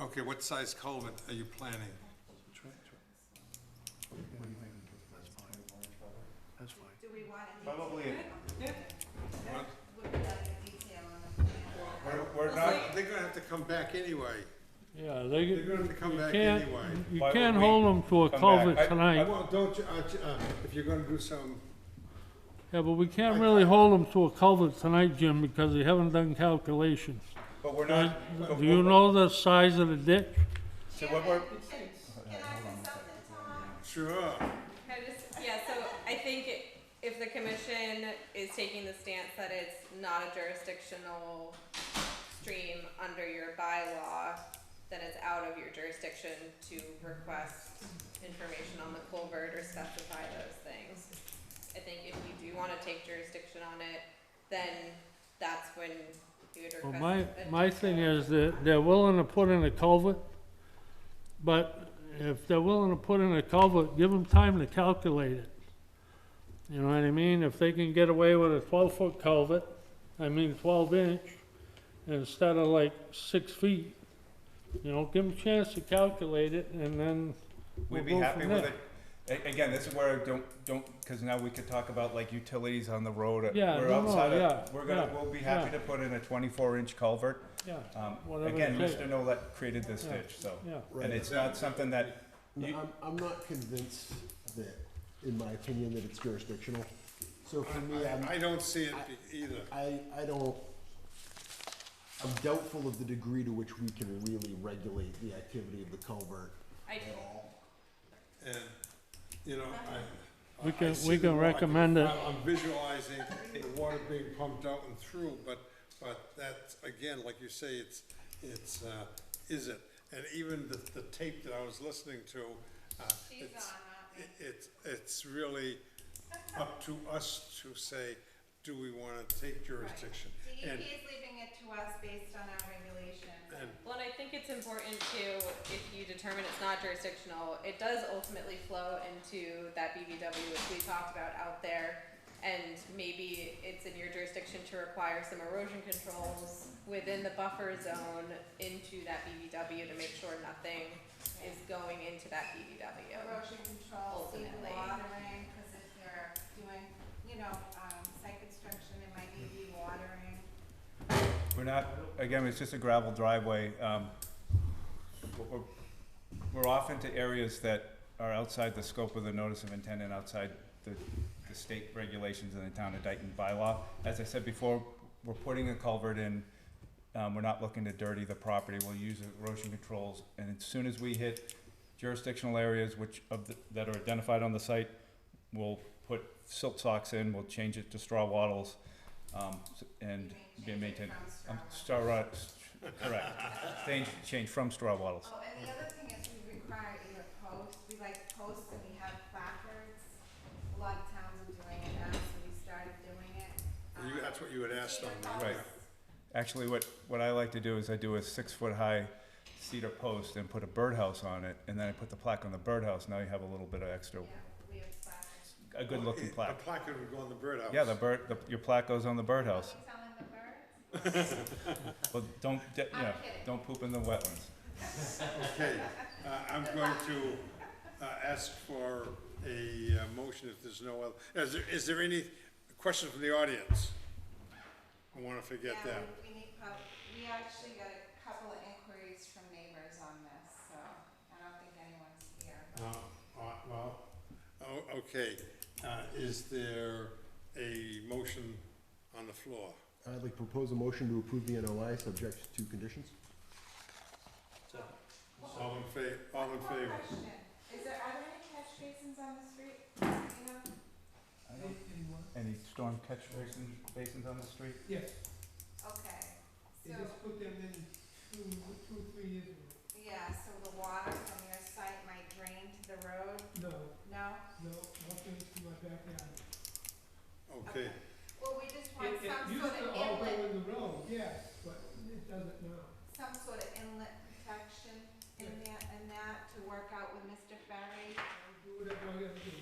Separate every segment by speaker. Speaker 1: Okay, what size culvert are you planning?
Speaker 2: That's fine.
Speaker 3: Do we want a detail?
Speaker 4: Probably,
Speaker 1: What?
Speaker 3: Would we like a detail on the plan?
Speaker 4: we're, we're not,
Speaker 1: They're gonna have to come back anyway.
Speaker 5: Yeah, they,
Speaker 1: They're
Speaker 5: you
Speaker 1: gonna have to come back
Speaker 5: can't,
Speaker 1: anyway.
Speaker 5: you
Speaker 4: Why
Speaker 5: can't
Speaker 4: would we
Speaker 5: hold them to
Speaker 4: come
Speaker 5: a
Speaker 4: back? I- I-
Speaker 5: culvert tonight.
Speaker 1: Well, don't you, uh, j- uh, if you're gonna do some,
Speaker 5: Yeah, but we
Speaker 1: I-
Speaker 5: can't really hold them to a culvert tonight, Jim, because they haven't done calculations.
Speaker 4: but we're
Speaker 5: Do
Speaker 4: not. but
Speaker 5: you
Speaker 4: we're-
Speaker 5: know the size of the ditch?
Speaker 4: So what we're,
Speaker 3: Can I say something, Tom?
Speaker 1: sure.
Speaker 6: Can I just, yeah, so I think i- if the commission is taking the stance that it's not a jurisdictional stream under your bylaw, then it's out of your jurisdiction to request information on the culvert or specify those things. I think if you do wanna take jurisdiction on it, then that's when you would request.
Speaker 5: Well, my,
Speaker 6: a
Speaker 5: my thing
Speaker 6: detail.
Speaker 5: is that they're willing to put in a culvert, but if they're willing to put in a culvert, give them time to calculate it. You know what I mean? If they can get away with a twelve-foot culvert, I mean twelve inch, instead of like six feet, you know, give them a chance to calculate it and then we'll
Speaker 4: we'd be
Speaker 5: go
Speaker 4: happy
Speaker 5: from
Speaker 4: with
Speaker 5: there.
Speaker 4: it. A- Again, this is where I don't, don't, cause now we could talk about like utilities on the road. uh,
Speaker 5: Yeah,
Speaker 4: We're
Speaker 5: no, no,
Speaker 4: outside
Speaker 5: yeah,
Speaker 4: of, we're gonna,
Speaker 5: yeah,
Speaker 4: we'll be happy to
Speaker 5: yeah.
Speaker 4: put in a twenty-four inch culvert.
Speaker 5: Yeah,
Speaker 4: Um,
Speaker 5: Whatever
Speaker 4: again,
Speaker 5: it
Speaker 4: Mr. Nolet created this
Speaker 5: Yeah.
Speaker 4: ditch, so,
Speaker 5: yeah.
Speaker 2: Right.
Speaker 4: and it's not something that,
Speaker 2: No,
Speaker 4: you-
Speaker 2: I'm, I'm not convinced that, in my opinion, that it's jurisdictional. So for me, I'm,
Speaker 1: I don't see it be- either.
Speaker 2: I, I don't, I'm doubtful of the degree to which we can really regulate the activity of the culvert
Speaker 6: I do.
Speaker 2: at all.
Speaker 1: And, you know, I.
Speaker 5: We
Speaker 1: I- I
Speaker 5: can-
Speaker 1: see
Speaker 5: we
Speaker 1: the
Speaker 5: can
Speaker 1: wa- I
Speaker 5: recommend it.
Speaker 1: I'm I'm visualizing the water being pumped out and through, but, but that's, again, like you say, it's, it's, uh, is it? And even the, the tape that I was listening to, uh,
Speaker 3: She's on,
Speaker 1: it's,
Speaker 3: huh?
Speaker 1: it- it's, it's really up to us to say, do we wanna take jurisdiction?
Speaker 3: DEP
Speaker 1: And,
Speaker 3: is leaving it to us based on our regulations.
Speaker 1: and
Speaker 6: Well, and I think it's important to, if you determine it's not jurisdictional, it does ultimately flow into that BBW which we talked about out there. And maybe it's in your jurisdiction to require some erosion controls within the buffer zone into that BBW to make sure nothing is going into that BBW.
Speaker 3: Erosion control, seed
Speaker 6: Ultimately.
Speaker 3: watering, because if they're doing, you know, um, site construction, it might need to be watering.
Speaker 4: we're not, again, it's just a gravel driveway. Um, we're- we're, we're off into areas that are outside the scope of the notice of intent and outside the, the state regulations and the town of Dayton bylaw. As I said before, we're putting a culvert in, um, we're not looking to dirty the property, we'll use erosion controls. And as soon as we hit jurisdictional areas which of the, that are identified on the site, we'll put silt socks in, we'll change it to straw wattles, um, s- and be
Speaker 3: Change it
Speaker 4: maintained.
Speaker 3: from straw
Speaker 4: Um, straw rod, correct, change, change from straw wattles.
Speaker 3: Oh, and the other thing is we require either posts, we like posts and we have placards. A lot of towns are doing it now, so we started doing it.
Speaker 1: you,
Speaker 3: Um,
Speaker 1: that's what you had asked on
Speaker 3: cedar
Speaker 1: that.
Speaker 4: Right.
Speaker 3: posts.
Speaker 4: Actually, what, what I like to do is I do a six-foot-high cedar post and put a birdhouse on it, and then I put the plaque on the birdhouse, now you have a little bit of extra,
Speaker 3: Yeah, we have placards.
Speaker 4: a good-looking plaque.
Speaker 1: The placard would go on the birdhouse.
Speaker 4: Yeah, the bird, the, your plaque goes on the birdhouse,
Speaker 3: Are we telling the birds?
Speaker 4: but don't, de- you know,
Speaker 3: I'm kidding.
Speaker 4: don't poop in the wetlands.
Speaker 1: Okay, uh, I'm going to, uh, ask for a uh, motion if there's no other, is there, is there any questions from the audience? I wanna forget
Speaker 3: Yeah,
Speaker 1: that.
Speaker 3: we- we need prob- we actually got a couple of inquiries from neighbors on this, so I don't think anyone's here.
Speaker 1: Uh, uh, well, oh, okay, uh, is there a motion on the floor?
Speaker 2: I'd like to propose a motion to approve the NOI subject to conditions.
Speaker 1: All in fa, all in
Speaker 3: One
Speaker 1: favor?
Speaker 3: question, is there, are there any catch basins on the street, you know?
Speaker 4: Any storm catch basins, basins on the street?
Speaker 3: Okay,
Speaker 7: They
Speaker 3: so,
Speaker 7: just put them in two, two, three years ago.
Speaker 3: yeah, so the water from your site might drain to the road,
Speaker 7: No,
Speaker 3: no?
Speaker 7: no, nothing to my backyard.
Speaker 1: Okay,
Speaker 3: Well, we just want
Speaker 7: It- it
Speaker 3: some sort of
Speaker 7: Used to all go
Speaker 3: inlet,
Speaker 7: in the road, yeah, but it doesn't now.
Speaker 3: some sort of inlet protection in that, in that to work out with Mr. Ferry.
Speaker 7: I'll do whatever I gotta do.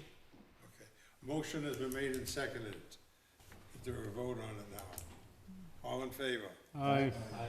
Speaker 1: okay, motion has been made and seconded, is there a vote on it now? All in favor?
Speaker 5: I,